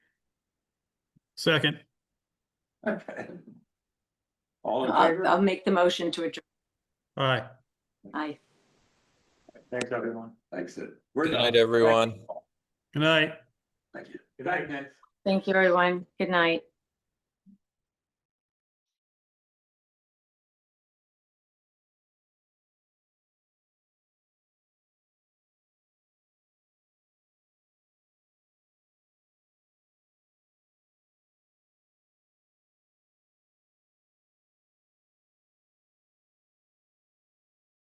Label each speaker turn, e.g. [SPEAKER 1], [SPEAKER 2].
[SPEAKER 1] Second,
[SPEAKER 2] Okay. All in
[SPEAKER 3] I'll,
[SPEAKER 2] favor?
[SPEAKER 3] I'll make the motion to adjourn.
[SPEAKER 1] aye.
[SPEAKER 3] Aye.
[SPEAKER 4] Thanks, everyone.
[SPEAKER 2] Thanks. Sid. We're
[SPEAKER 5] Good
[SPEAKER 2] done.
[SPEAKER 5] night, everyone.
[SPEAKER 1] Good night.
[SPEAKER 2] Thank you. Good night, guys.
[SPEAKER 3] Thank you, everyone. Good night.